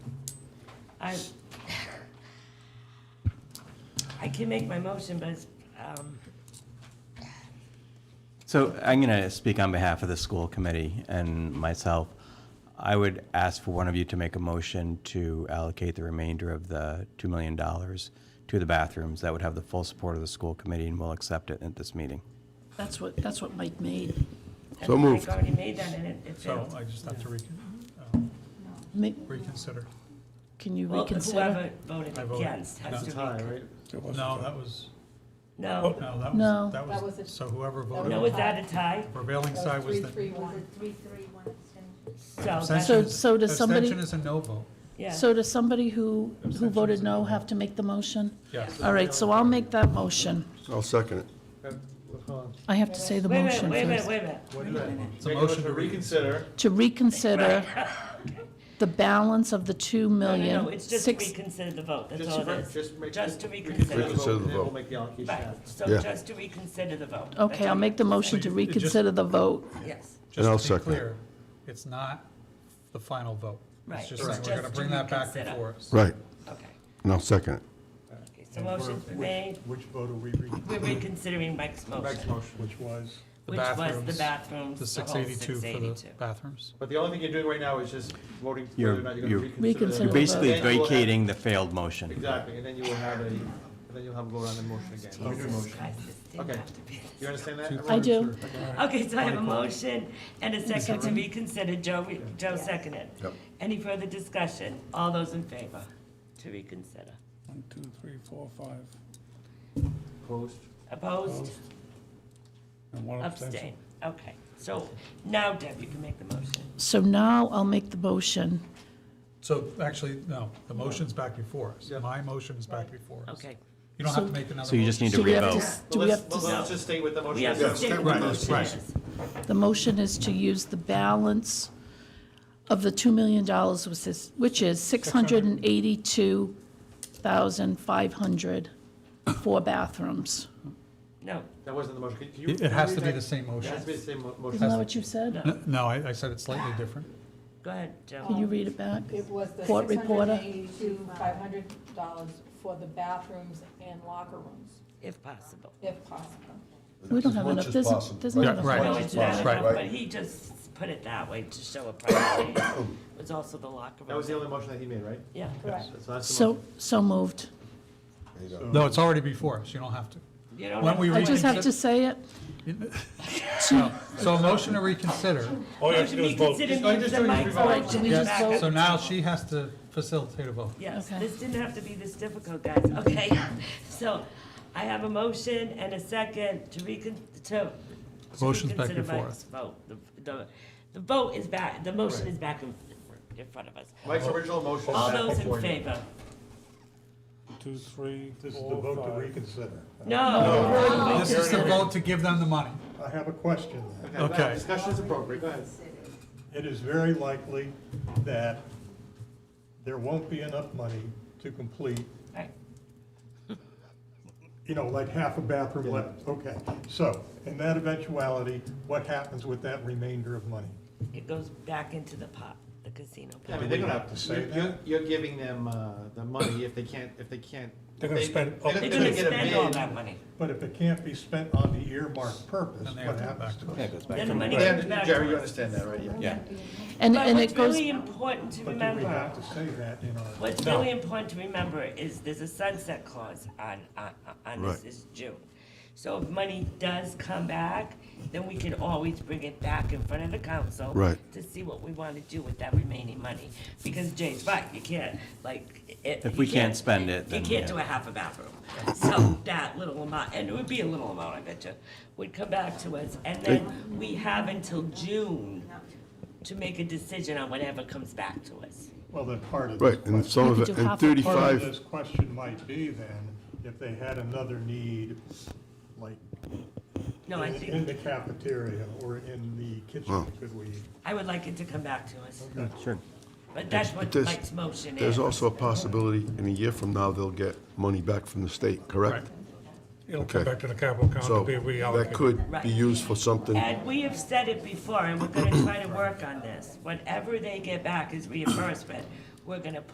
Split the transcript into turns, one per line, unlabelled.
I, I can make my motion, but it's, um,
So I'm going to speak on behalf of the school committee and myself. I would ask for one of you to make a motion to allocate the remainder of the $2 million to the bathrooms. That would have the full support of the school committee, and we'll accept it at this meeting.
That's what, that's what Mike made.
So moved.
Mike already made that and it, it
So uh,
failed.
I just have to recon, um,
Ma-
reconsider.
Can you
Well,
reconsider?
whoever voted
I voted.
against has to be.
right?
No, that was, no,
No,
that
Oh. No.
was, that
That was a-
was, so whoever
no,
voted,
was that a tie?
prevailing side was the,
Three, three, one.
Three, three, one abstention.
So that's,
Abstention.
So, so does somebody,
abstention is a no vote,
yeah,
so does somebody who, who
Abstentions
voted
is
no
no.
have to make the motion?
yes.
All right, so I'll make that motion.
I'll second it.
I have to say the
wait a minute,
motion
wait a minute,
first.
wait a minute.
It's a motion to reconsider.
To reconsider the balance of the two
No, no, no,
million,
it's just
six,
reconsider the vote, that's
Just
all
to re-
it is.
just make-
Just to
Reconsider
reconsider.
the vote.
and then we'll make the allocation
Right,
after.
so
Yeah.
just to reconsider the vote. That's
okay, I'll
all.
make the motion to
So you- it just-
reconsider the vote.
Yes,
And I'll
Just to be
second it.
clear, it's not the final vote.
Right,
It's just,
it's
that we're gonna
just
bring
to
that back
reconsider.
before us.
Right,
okay.
and I'll second it.
Okay, So motion made,
Which vote are we reading?
we're reconsidering Mike's
Mike's
motion,
motion, which was?
The
which was the
bathrooms,
bathrooms,
The
the
six
whole
eighty-two
six
for the
eighty-two.
bathrooms.
But the only thing you're doing right now is just voting
You're-
whether or not you're gonna
you're- You're
Reconsider the
reconsider. the vote.
basically
Then you will have-
vacating the failed motion.
Exactly, and then you will have a, and then you'll have a vote on the motion again.
Jesus Christ, this didn't
Okay.
have to be this.
You understand that?
I do.
Okay, so I have a motion and a second to be considered. Joe, re- Joe seconded.
Yep.
Any further discussion? All those in favor to reconsider?
One, two, three, four, five,
Opposed?
Opposed?
and one abstention.
Abstain. Okay, so now Deb, you can make the motion.
So now I'll make the motion.
So actually, no, the motion's back before us.
Yeah.
My motion is back before us.
Okay,
You don't have to make another motion.
So you just need to
Do we have
revote.
s-
But
Do we
let's-
have
well,
to,
Let's just stay with the motion.
we have to stick with the motion.
right.
yes.
the motion is to use the balance of the $2 million, which is, which is 682,500 for bathrooms.
No,
That wasn't the motion. Can- can you-
It it
can you
has
read
to be
that?
the same
It
motion.
has to be the same mo- motion.
Isn't that what you said?
N- No, I, I said it's slightly different.
go ahead, Joe.
Can you read it back?
It was the
Court reporter.
$682,500 for the bathrooms and locker rooms,
if possible.
if possible.
We don't have enough, there's, there's not
Yeah,
enough.
right.
No,
money.
it's not
Right.
enough, but he just put it that way to show a priority. It was also the locker
That was the
room.
only motion that he made, right?
Yeah,
Correct.
So that's the
So,
motion.
so moved.
No, it's already before us. You don't have to.
you don't
When
have
we
to-
I just have to say it.
No. So a motion to reconsider.
All you have to
Motion
do
be
is vote.
considered
All you just
means that
do is
Mike's
revote.
Right, should we
motion is
just
back
vote?
up.
So now she has to facilitate a vote.
Yes,
Okay.
this didn't have to be this difficult, guys, okay? So I have a motion and a second to recon, to. to
Motion's back
reconsider
before
Mike's
us.
Vote, the, the, the vote is back, the motion is back in, in front of us.
Mike's original motion. is
All
back
those
before
in
you.
favor?
Two, three,
This is the
four,
vote to
five.
reconsider.
No,
This is the vote to give them the money.
I have a question then.
Okay,
Okay.
discussion is appropriate, go ahead.
It is very likely that there won't be enough money to complete,
Right.
you know, like half a bathroom left. Okay, so in that eventuality, what happens with that remainder of money?
it goes back into the pot, the casino
I
pot.
mean, they're
we
gonna,
have to say
you're-
that?
you're, you're giving them, uh, the money if they can't, if they can't.
They're gonna
they-
spend up
They're
to-
They're
they're
gonna
gonna get a
spend all that
bid.
money.
But if it can't be spent on the earmarked purpose,
Then they
what
have to go back
happens to
to
it?
Yeah, it goes back.
Then the money
They
comes back
under- Jerry, you
to us.
understand that, right? Yeah.
Yeah.
And,
But
and
what's
it goes,
really important to
But do we
remember
have to say that in our?
What's really important to remember is there's a sunset clause on, on, on this,
Right.
this June. So if money does come back, then we can always bring it back in front of the council.
Right.
To see what we wanna do with that remaining money, because Jay's right, you can't, like, it.
If
you
we can't spend it, then,
You can't
yeah.
do a half a bathroom, so that little amount, and it would be a little amount, I bet you, would come back to us, and then we have until June to make a decision on whatever comes back to us.
Well, then part of. this
Right, and
question-
some of
We could
it,
do
and
half a part.
Part of
thirty-five,
this question might be then, if they had another need, like
No, I
in-
think.
in the cafeteria or in the kitchen, could we?
I would like it to come back to us,
Sure.
but that's what
There's-
Mike's motion is.
there's also a possibility in a year from now, they'll get money back from the state, correct?
It'll
come Okay. back to
the capital account
So that could
Right.
be used for something.
And we have said it before, and we're gonna try to work on this. Whatever they get back is reimbursement. We're gonna